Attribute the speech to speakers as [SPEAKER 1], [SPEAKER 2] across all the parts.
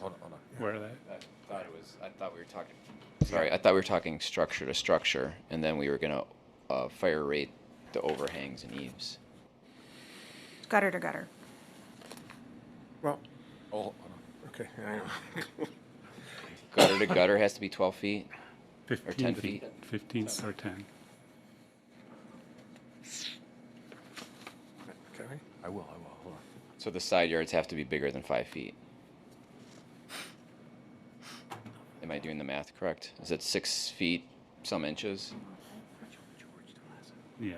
[SPEAKER 1] Hold on, hold on.
[SPEAKER 2] Where are they?
[SPEAKER 3] I thought it was, I thought we were talking, sorry, I thought we were talking structure to structure, and then we were gonna, uh, fire rate the overhangs and eaves.
[SPEAKER 4] gutter to gutter.
[SPEAKER 2] Well,
[SPEAKER 1] Oh, hold on.
[SPEAKER 2] okay, I know.
[SPEAKER 3] Gutter to gutter has to be twelve feet,
[SPEAKER 2] 15
[SPEAKER 3] feet.
[SPEAKER 2] feet, 15 or 10.
[SPEAKER 1] Okay, I will, I will, hold on.
[SPEAKER 3] so the side yards have to be bigger than five feet. Am I doing the math correct? Is it six feet, some inches?
[SPEAKER 2] Yeah,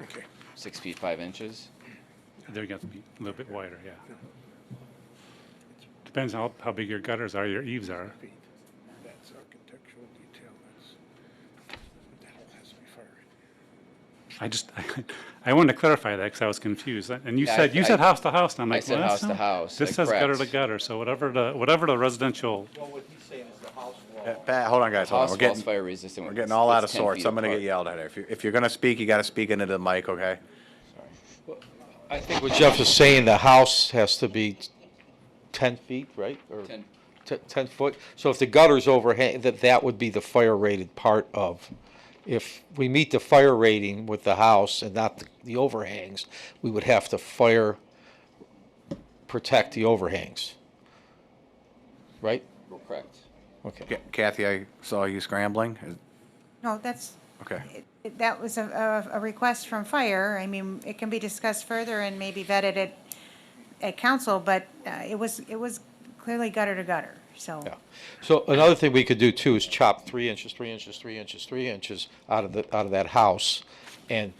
[SPEAKER 1] Okay.
[SPEAKER 3] Six feet, five inches?
[SPEAKER 2] they're going to be a little bit wider, yeah. Depends how, how big your gutters are, your eaves are.
[SPEAKER 5] feet. That's architectural detail, that's, that all has to be fire rated.
[SPEAKER 2] I just, I wanted to clarify that because I was confused. And you
[SPEAKER 3] Yeah, I-
[SPEAKER 2] said, you said
[SPEAKER 3] I-
[SPEAKER 2] house to house, and I'm
[SPEAKER 3] I
[SPEAKER 2] like,
[SPEAKER 3] said
[SPEAKER 2] well, that's
[SPEAKER 3] house to
[SPEAKER 2] not-
[SPEAKER 3] house,
[SPEAKER 2] This
[SPEAKER 3] like,
[SPEAKER 2] says gutter to
[SPEAKER 3] correct.
[SPEAKER 2] gutter, so whatever the, whatever the residential,
[SPEAKER 6] Well, what he's saying is the house wall.
[SPEAKER 1] Pat, hold on, guys, hold on.
[SPEAKER 3] House
[SPEAKER 1] We're
[SPEAKER 3] walls
[SPEAKER 1] getting,
[SPEAKER 3] fire resistant.
[SPEAKER 1] we're getting all out of
[SPEAKER 3] It's 10
[SPEAKER 1] sorts.
[SPEAKER 3] feet
[SPEAKER 1] I'm gonna get
[SPEAKER 3] apart.
[SPEAKER 1] yelled at here. If you if you're gonna speak, you gotta speak into the mic, okay?
[SPEAKER 6] I think what Jeff is saying, the house has to be ten feet, right? Or
[SPEAKER 3] Ten.
[SPEAKER 6] te- Ten foot, so if the gutter's overhang, that, that would be the fire rated part of. If we meet the fire rating with the house and not the- the overhangs, we would have to fire, protect the overhangs. Right?
[SPEAKER 3] Correct.
[SPEAKER 6] Okay.
[SPEAKER 1] Ca- Kathy, I saw you scrambling. Is-
[SPEAKER 4] No, that's,
[SPEAKER 1] Okay.
[SPEAKER 4] it- it- that was a, a a request from fire. I mean, it can be discussed further and maybe vetted at, at council, but uh, it was, it was clearly gutter to gutter, so.
[SPEAKER 6] Yeah. So another thing we could do too is chop three inches, three inches, three inches, three inches out of the, out of that house and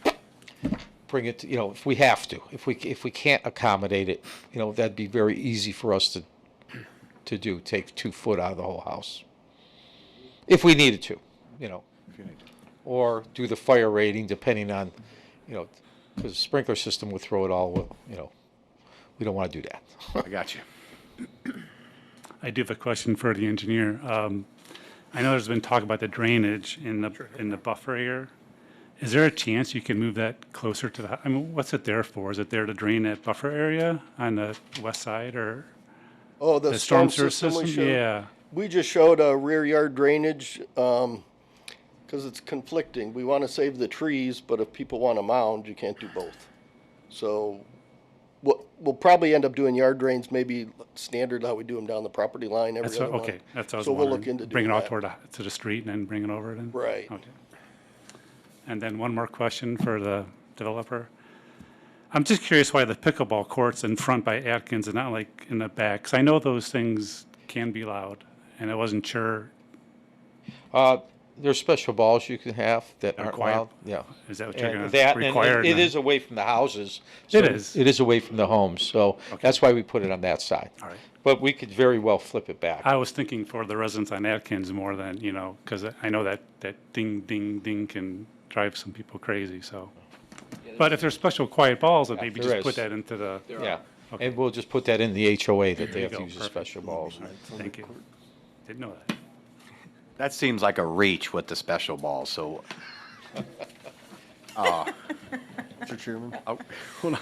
[SPEAKER 6] bring it, to- you know, if we have to, if we, if we can't accommodate it, you know, that'd be very easy for us to, to do, take two foot out of the whole house. If we needed to, you know,
[SPEAKER 1] If you need to.
[SPEAKER 6] or do the fire rating depending on, you know, because sprinkler system would throw it all, you know, we don't want to do that.
[SPEAKER 1] I got you.
[SPEAKER 2] I do have a question for the engineer. Um, I know there's been talk about the drainage in the, in the buffer area. Is there a chance you can move that closer to the, hou- I mean, what's it there for? Is it there to drain that buffer area on the west side or
[SPEAKER 7] Oh, the
[SPEAKER 2] the
[SPEAKER 7] storm
[SPEAKER 2] storm sewer
[SPEAKER 7] system we
[SPEAKER 2] system?
[SPEAKER 7] showed?
[SPEAKER 2] Yeah.
[SPEAKER 7] We just showed a rear yard drainage, um 'cause because it's conflicting. We want to save the trees, but if people want a mound, you can't do both. So, we'll, we'll probably end up doing yard drains, maybe standard how we do them down the property line every
[SPEAKER 2] That's,
[SPEAKER 7] other
[SPEAKER 2] what-
[SPEAKER 7] one.
[SPEAKER 2] okay, that's what I was
[SPEAKER 7] So we'll look
[SPEAKER 2] wondering.
[SPEAKER 7] into
[SPEAKER 2] Bring it
[SPEAKER 7] doing
[SPEAKER 2] all
[SPEAKER 7] that.
[SPEAKER 2] toward, the- to the street and then bring it over then?
[SPEAKER 7] Right.
[SPEAKER 2] Okay. And then one more question for the developer. I'm just curious why the pickleball court's in front by Atkins and not like in the back, because I know those things can be loud, and I wasn't sure,
[SPEAKER 6] Uh, there's special balls you can have that aren't
[SPEAKER 2] Required.
[SPEAKER 6] loud, yeah.
[SPEAKER 2] is that what you're
[SPEAKER 6] And
[SPEAKER 2] going
[SPEAKER 6] Uh, that,
[SPEAKER 2] to
[SPEAKER 6] and
[SPEAKER 2] require?
[SPEAKER 6] it- it
[SPEAKER 2] now?
[SPEAKER 6] is away from the houses.
[SPEAKER 2] It
[SPEAKER 6] so
[SPEAKER 2] is.
[SPEAKER 6] It is away from the homes, so that's why we put it on that side.
[SPEAKER 2] All right.
[SPEAKER 6] But we could very well flip it back.
[SPEAKER 2] I was thinking for the residents on Atkins more than, you know, because I know that, that ding, ding, ding can drive some people crazy, so. But if there's special quiet balls, then maybe
[SPEAKER 6] there
[SPEAKER 2] just put
[SPEAKER 6] is.
[SPEAKER 2] that into the,
[SPEAKER 6] Yeah,
[SPEAKER 2] Okay.
[SPEAKER 6] and we'll just put that in the HOA that they
[SPEAKER 2] you
[SPEAKER 6] have to
[SPEAKER 2] go,
[SPEAKER 6] use the
[SPEAKER 2] perfect.
[SPEAKER 6] special balls.
[SPEAKER 2] thank you. Didn't know that.
[SPEAKER 1] That seems like a reach with the special ball, so.
[SPEAKER 5] Mr. Chairman?
[SPEAKER 1] oh, hold on.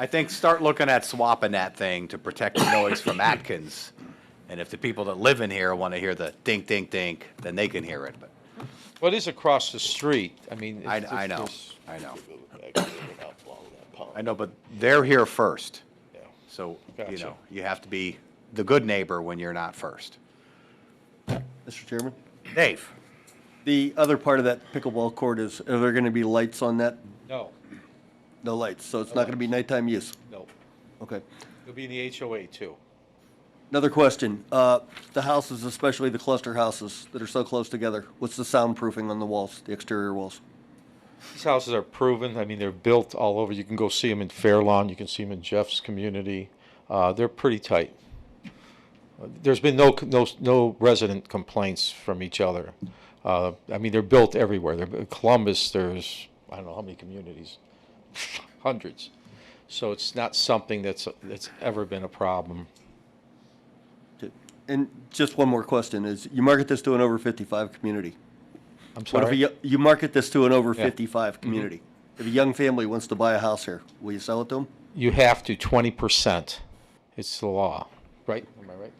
[SPEAKER 1] I think start looking at swapping that thing to protect the noise from Atkins. And if the people that live in here want to hear the dink, dink, dink, then they can hear it. But
[SPEAKER 6] Well, it is across the street, I mean.
[SPEAKER 1] I,
[SPEAKER 6] it's-
[SPEAKER 1] I know,
[SPEAKER 6] it's-
[SPEAKER 1] I know. I
[SPEAKER 7] I
[SPEAKER 1] know, but they're here first. So, you
[SPEAKER 6] Gotcha.
[SPEAKER 1] know, you have to be the good neighbor when you're not first.
[SPEAKER 5] Mr. Chairman?
[SPEAKER 1] Dave?
[SPEAKER 5] The other part of that pickleball court is, are there gonna be lights on that?
[SPEAKER 6] No,
[SPEAKER 5] No lights, so it's not gonna be nighttime use.
[SPEAKER 6] no,
[SPEAKER 5] Okay.
[SPEAKER 6] it'll be in the HOA too.
[SPEAKER 5] Another question, uh, the houses, especially the cluster houses that are so close together, what's the soundproofing on the walls, the exterior walls?
[SPEAKER 6] These houses are proven, I mean, they're built all over, you can go see them in Fairlawn, you can see them in Jeff's community, uh, they're pretty tight. Uh, There's been no, no, no resident complaints from each other. Uh, I mean, they're built everywhere, they're, Columbus, there's, I don't know how many communities, hundreds. So it's not something that's, that's ever been a problem.
[SPEAKER 5] And just one more question is, you market this to an over fifty-five community.
[SPEAKER 6] I'm
[SPEAKER 5] What if
[SPEAKER 6] sorry,
[SPEAKER 5] you, you market this to an over
[SPEAKER 6] Yeah. Mm-hmm.
[SPEAKER 5] fifty-five community? If a young family wants to buy a house here, will you sell it to them?
[SPEAKER 6] you have to twenty percent, it's the law, right? Am I right?